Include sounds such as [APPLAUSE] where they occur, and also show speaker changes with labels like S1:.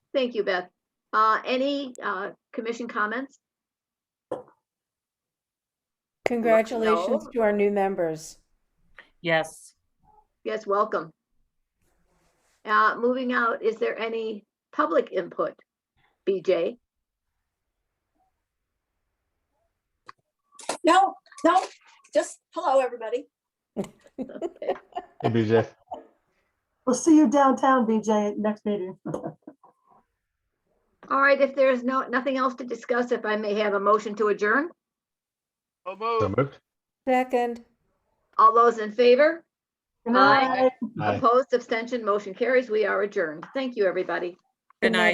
S1: Thank you, Beth. Uh, Any uh, commission comments?
S2: Congratulations
S1: no.
S2: to our new members.
S3: Yes,
S1: Yes, welcome. Uh, Moving out, is there any public input? BJ?
S4: No, no, just hello, everybody.
S5: Hey,
S6: [LAUGHS]
S5: BJ.
S6: We'll see you downtown, BJ, at next meeting.
S1: All right, if there's no, nothing else to discuss, if I may have a motion to adjourn,
S7: So
S5: So
S7: moved.
S5: moved.
S2: Second,
S1: all those in favor?
S6: Good
S1: Aye.
S6: night.
S5: Aye.
S1: Opposed, abstention, motion carries. We are adjourned. Thank you, everybody.
S3: good night.